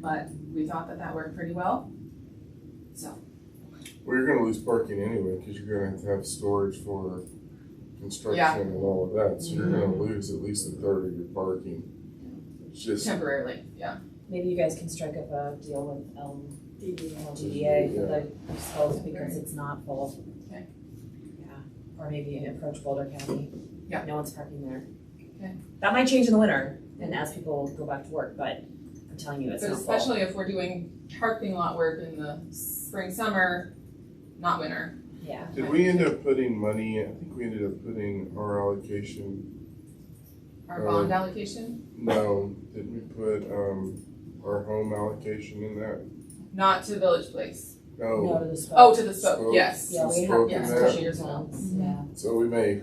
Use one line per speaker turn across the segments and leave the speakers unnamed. but we thought that that worked pretty well. So,
Well, you're gonna lose parking anyway, cause you're gonna have to have storage for
Yeah. Mm-hmm.
construction and all of that, so you're gonna lose at least a third of your parking. It's just.
temporarily, yeah.
Maybe you guys can strike up a deal with um, Elm, LGDA for the schools because it's not full.
Okay.
Yeah, or maybe an approach Boulder County.
Yeah.
No one's parking there.
Okay.
That might change in the winter and as people go back to work, but I'm telling you, it's
But
not full.
especially if we're doing parking lot work in the spring, summer, not winter.
Yeah,
Did we end up putting money, in- I think we ended up putting our allocation,
Our bond allocation,
no, did we put, um, our home allocation in that?
not to Village Place.
no
No.
to the spoke.
Oh, to the spoke,
Spoke.
yes.
Yeah, we
It's
have,
broken
yeah,
there.
especially years old, yeah.
So we may, we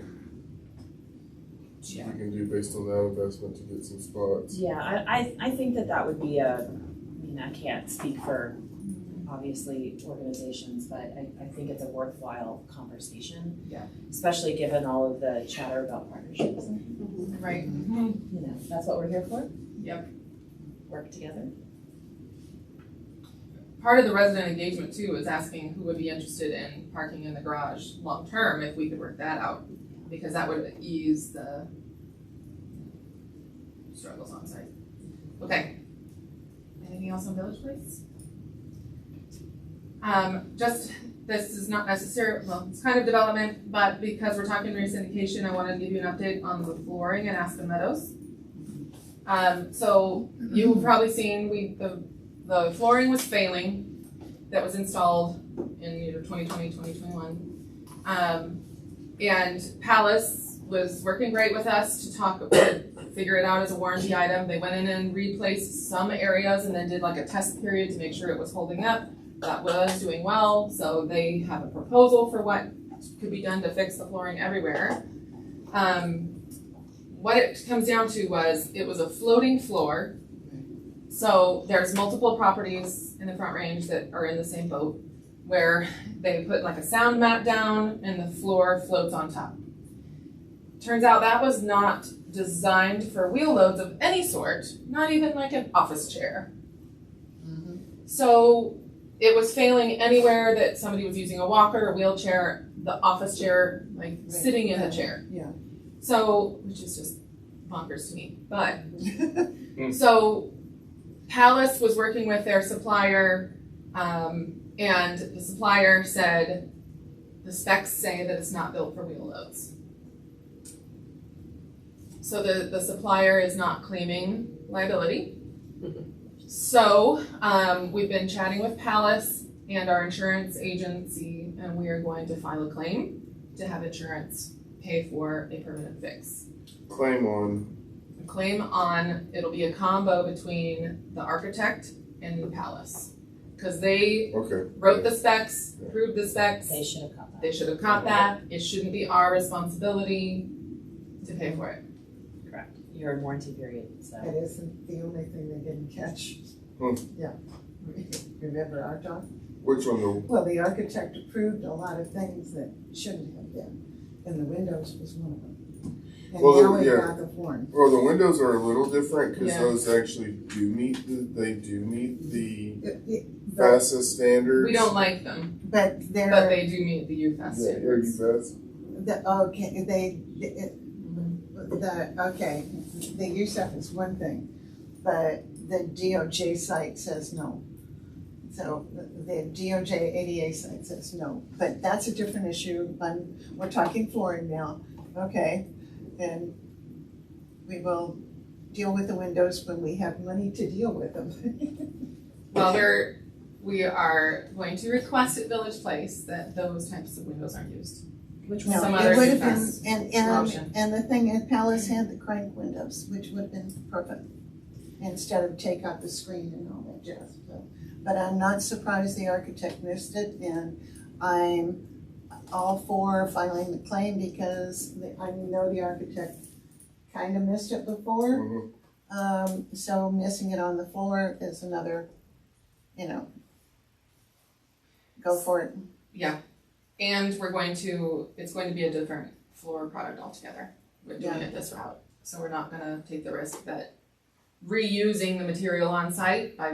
Yeah.
can do based on that investment to get some spots.
Yeah, I, I, I think that that would be a, I mean, I can't speak for obviously organizations, but I, I think it's a worthwhile conversation.
Yeah.
Especially given all of the chatter about partnerships, you
Right.
know, that's what we're here for,
Yep.
work together.
Part of the resident engagement too is asking who would be interested in parking in the garage long term if we could work that out. Because that would ease the struggles on site. Okay. Anything else on Village Place? Um, just, this is not necessary, well, it's kind of development, but because we're talking re-syndication, I wanted to give you an update on the flooring in Aspen Meadows. Um, so you've probably seen, we, the the flooring was failing that was installed in you know 2020 2021 um, and palace was working great with us to talk figure it out as a warranty item they went in and replaced some areas and then did like a test period to make sure it was holding up that was doing well so they have a proposal for what could be done to fix the flooring everywhere um, what it comes down to was it was a floating floor so there's multiple properties in the Front Range that are in the same boat where they put like a sound mat down and the floor floats on top. Turns out that was not designed for wheel loads of any sort, not even like an office chair.
Mm-hmm.
So it was failing anywhere that somebody was using a walker or wheelchair, the office chair, like sitting in the chair.
Yeah.
So, which is just bonkers to me, but so Palace was working with their supplier, um, and the supplier said, the specs say that it's not built for wheel loads. So the, the supplier is not claiming liability. So, um, we've been chatting with Palace and our insurance agency, and we are going to file a claim to have insurance pay for a permanent fix
Claim on,
claim on, it'll be a combo between the architect and the palace. Cause they
okay.
wrote the specs, approved the specs,
They should have caught
they
that.
should have caught that, it shouldn't be our responsibility to pay for it.
Correct. You're in warranty period, so.
That isn't the only thing they didn't catch.
Hmm.
Yeah. Remember our talk?
Which one, the
Well, the architect approved a lot of things that shouldn't have been, and the windows was one of them. And
Well,
now we've
yeah.
got the form.
Well, the windows are a little different because
Yeah.
those actually do meet the, they do meet the
It- it- But,
FASA standards.
We don't like them,
but
but
they're,
they do meet the UFAS
Yeah, are you
standards.
fast?
the, okay, they, it- the, okay, the USEF is one thing, but the DOJ site says no. So the- the DOJ ADA site says no, but that's a different issue, I'm, we're talking flooring now, okay? And we will deal with the windows when we have money to deal with them.
Well, we're, we are going to request at Village Place that those types of windows aren't used.
Which
Some
No,
one?
other
it would have been,
fast
and,
option.
and, and the thing, at Palace had the crank windows, which would have been perfect, instead of take out the screen and all that jazz, but, but I'm not surprised the architect missed it, and I'm all for filing the claim, because the- I know the architect kind of missed it before,
Mhm.
um, so missing it on the floor is another, you know, go for it.
Yeah, and we're going to, it's going to be a different floor product altogether. We're doing
Yeah.
it this route, so we're not gonna take the risk that reusing the material on site by